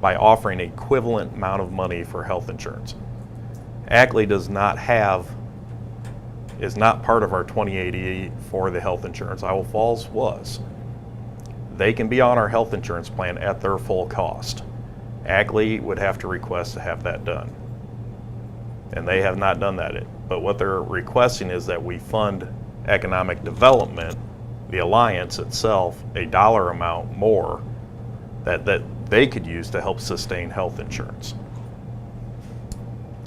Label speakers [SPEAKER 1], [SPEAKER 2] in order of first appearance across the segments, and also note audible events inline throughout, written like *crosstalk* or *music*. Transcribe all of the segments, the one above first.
[SPEAKER 1] by offering equivalent amount of money for health insurance. Ackley does not have, is not part of our 2080 for the health insurance. Iowa Falls was. They can be on our health insurance plan at their full cost. Ackley would have to request to have that done. And they have not done that. But what they're requesting is that we fund economic development, the alliance itself, a dollar amount more that, that they could use to help sustain health insurance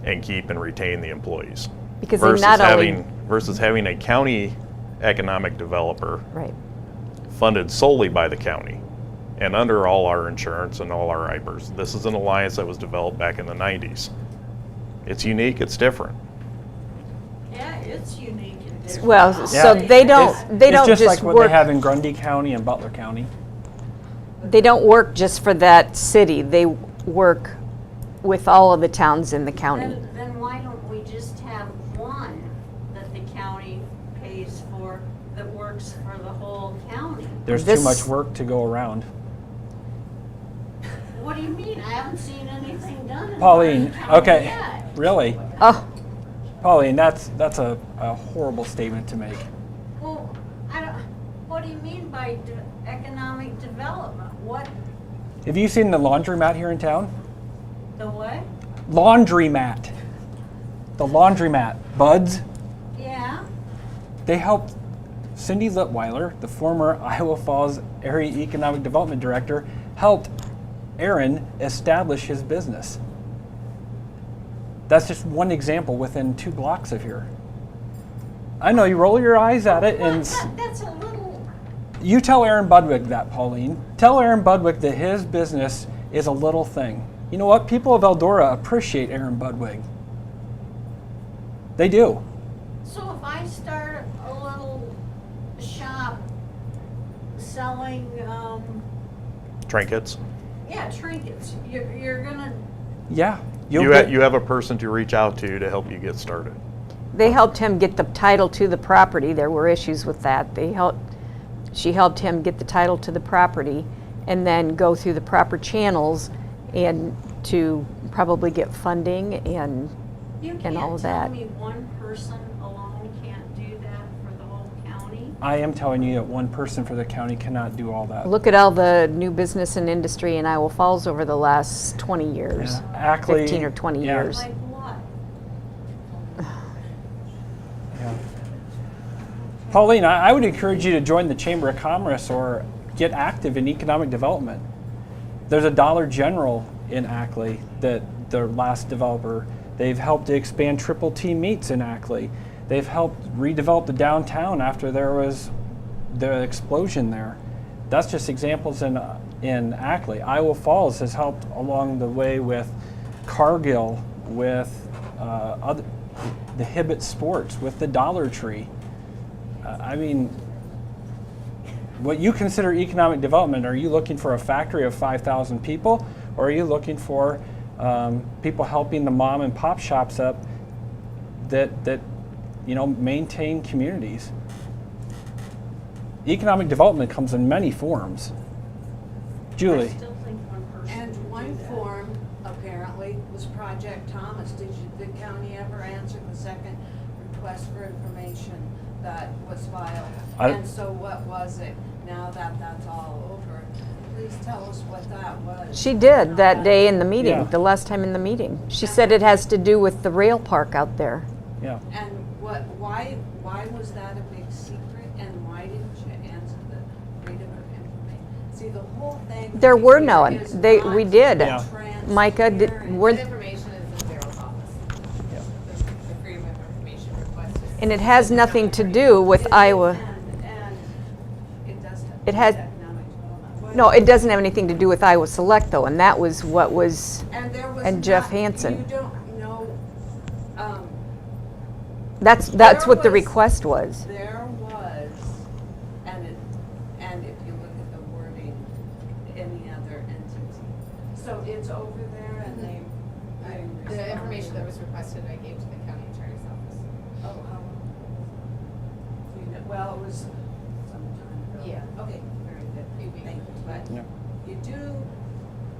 [SPEAKER 1] and keep and retain the employees.
[SPEAKER 2] Because they
[SPEAKER 1] versus
[SPEAKER 2] not only-
[SPEAKER 1] having versus having a county economic developer
[SPEAKER 2] Right.
[SPEAKER 1] funded solely by the county and under all our insurance and all our IPERs. This is an alliance that was developed back in the 90s. It's unique, it's different.
[SPEAKER 3] Yeah, it's unique and different.
[SPEAKER 2] Well, so
[SPEAKER 4] Yeah.
[SPEAKER 2] they don't,
[SPEAKER 4] It's-
[SPEAKER 2] they don't
[SPEAKER 4] It's just
[SPEAKER 2] just
[SPEAKER 4] like what they have
[SPEAKER 2] work,
[SPEAKER 4] in Grundy County and Butler County.
[SPEAKER 2] they don't work just for that city. They work with all of the towns in the county.
[SPEAKER 3] Then, then why don't we just have one that the county pays for that works for the whole county?
[SPEAKER 4] There's too
[SPEAKER 2] This-
[SPEAKER 4] much work to go around.
[SPEAKER 3] What do you mean? I haven't seen anything done in Lorraine
[SPEAKER 4] Pauline,
[SPEAKER 3] County
[SPEAKER 4] okay,
[SPEAKER 3] yet.
[SPEAKER 4] really?
[SPEAKER 2] Oh,
[SPEAKER 4] Pauline, that's, that's a, a horrible statement to make.
[SPEAKER 3] Well, I don't, what do you mean by de- economic development? What,
[SPEAKER 4] Have you seen the laundromat here in town?
[SPEAKER 3] the what?
[SPEAKER 4] Laundromat. The laundromat. Buds,
[SPEAKER 3] Yeah,
[SPEAKER 4] they helped Cindy Litweiler, the former *laughs* Iowa Falls Area Economic Development Director, helped Aaron establish his business. That's just one example within two blocks of here. I know you roll your eyes at it and s-
[SPEAKER 3] That- that's a little,
[SPEAKER 4] you tell Aaron Budwick that, Pauline. Tell Aaron Budwick that his business is a little thing. You know what? People of Eldora appreciate Aaron Budwig. They do.
[SPEAKER 3] so if I start a little shop selling, um,
[SPEAKER 1] Trinkets.
[SPEAKER 3] Yeah, trinkets. You're, you're gonna,
[SPEAKER 4] Yeah.
[SPEAKER 1] You,
[SPEAKER 4] You'll
[SPEAKER 1] ha-
[SPEAKER 4] get-
[SPEAKER 1] you have a person to reach out to to help you get started.
[SPEAKER 2] they helped him get the title to the property. There were issues with that. They helped, she helped him get the title to the property and then go through the proper channels and to probably get funding and
[SPEAKER 3] you
[SPEAKER 2] And all
[SPEAKER 3] can't
[SPEAKER 2] of
[SPEAKER 3] tell
[SPEAKER 2] that.
[SPEAKER 3] me one person alone can't do that for the whole county.
[SPEAKER 4] I am telling you that one person for the county cannot do all that.
[SPEAKER 2] Look at all the new business and industry in Iowa Falls over the last 20 years.
[SPEAKER 4] Yeah. Ackley,
[SPEAKER 2] 15 or 20
[SPEAKER 4] yeah.
[SPEAKER 2] years.
[SPEAKER 3] Like what?
[SPEAKER 4] Yeah. Pauline, I, I would encourage you to join the Chamber of Commerce or get active in economic development. There's a Dollar General in Ackley that their last developer. They've helped to expand Triple T Meats in Ackley. They've helped redevelop the downtown after there was the explosion there. That's just examples in uh, in Ackley. Iowa Falls has helped along the way with Cargill, with uh, other, the Hibbett Sports, with the Dollar Tree. Uh, I mean, what you consider economic development, are you looking for a factory of 5,000 people, or are you looking for um, people helping the mom and pop shops up that, that you know, maintain communities? Economic development comes in many forms.
[SPEAKER 3] I
[SPEAKER 4] Julie,
[SPEAKER 3] still think one person.
[SPEAKER 5] And one form apparently was Project Thomas. Did you, the county ever answer the second request for information that was filed?
[SPEAKER 4] I-
[SPEAKER 5] And so what was it? Now that that's all over, please tell us what that was.
[SPEAKER 2] She did that day in the meeting,
[SPEAKER 4] Yeah.
[SPEAKER 2] the last time in the meeting. She said it has to do with the rail park out there.
[SPEAKER 4] yeah.
[SPEAKER 5] And what, why, why was that a big secret and why didn't you answer the freedom of information? See, the whole thing.
[SPEAKER 2] There were
[SPEAKER 5] here
[SPEAKER 2] none.
[SPEAKER 5] is
[SPEAKER 2] They- we
[SPEAKER 5] not
[SPEAKER 2] did.
[SPEAKER 4] Yeah.
[SPEAKER 2] Micah, did-
[SPEAKER 5] transparent.
[SPEAKER 2] were-
[SPEAKER 6] That information is in Daryl's office.
[SPEAKER 4] Yeah.
[SPEAKER 6] The the Freedom of Information request is.
[SPEAKER 2] And it has nothing to do with Iowa.
[SPEAKER 5] And, and it does.
[SPEAKER 2] It has-
[SPEAKER 5] economic development.
[SPEAKER 2] No, it doesn't have anything to do with Iowa Select though, and that was what was,
[SPEAKER 5] And there was.
[SPEAKER 2] and Jeff
[SPEAKER 5] not-
[SPEAKER 2] Hansen.
[SPEAKER 5] You don't know, um,
[SPEAKER 2] that's, that's
[SPEAKER 5] There
[SPEAKER 2] what the
[SPEAKER 5] was-
[SPEAKER 2] request was.
[SPEAKER 5] there was, and it, and if you look at the wording, any other entity. So it's over there and they.
[SPEAKER 6] I-
[SPEAKER 5] they
[SPEAKER 6] Mm-hmm. The information that
[SPEAKER 5] responded.
[SPEAKER 6] was requested, I gave to the county attorney's office.
[SPEAKER 5] Oh, how? Do you know, well, it was some time ago.
[SPEAKER 6] Yeah.
[SPEAKER 5] Okay, very
[SPEAKER 6] Few weeks.
[SPEAKER 5] good, thank you. But
[SPEAKER 4] Yeah.
[SPEAKER 5] you do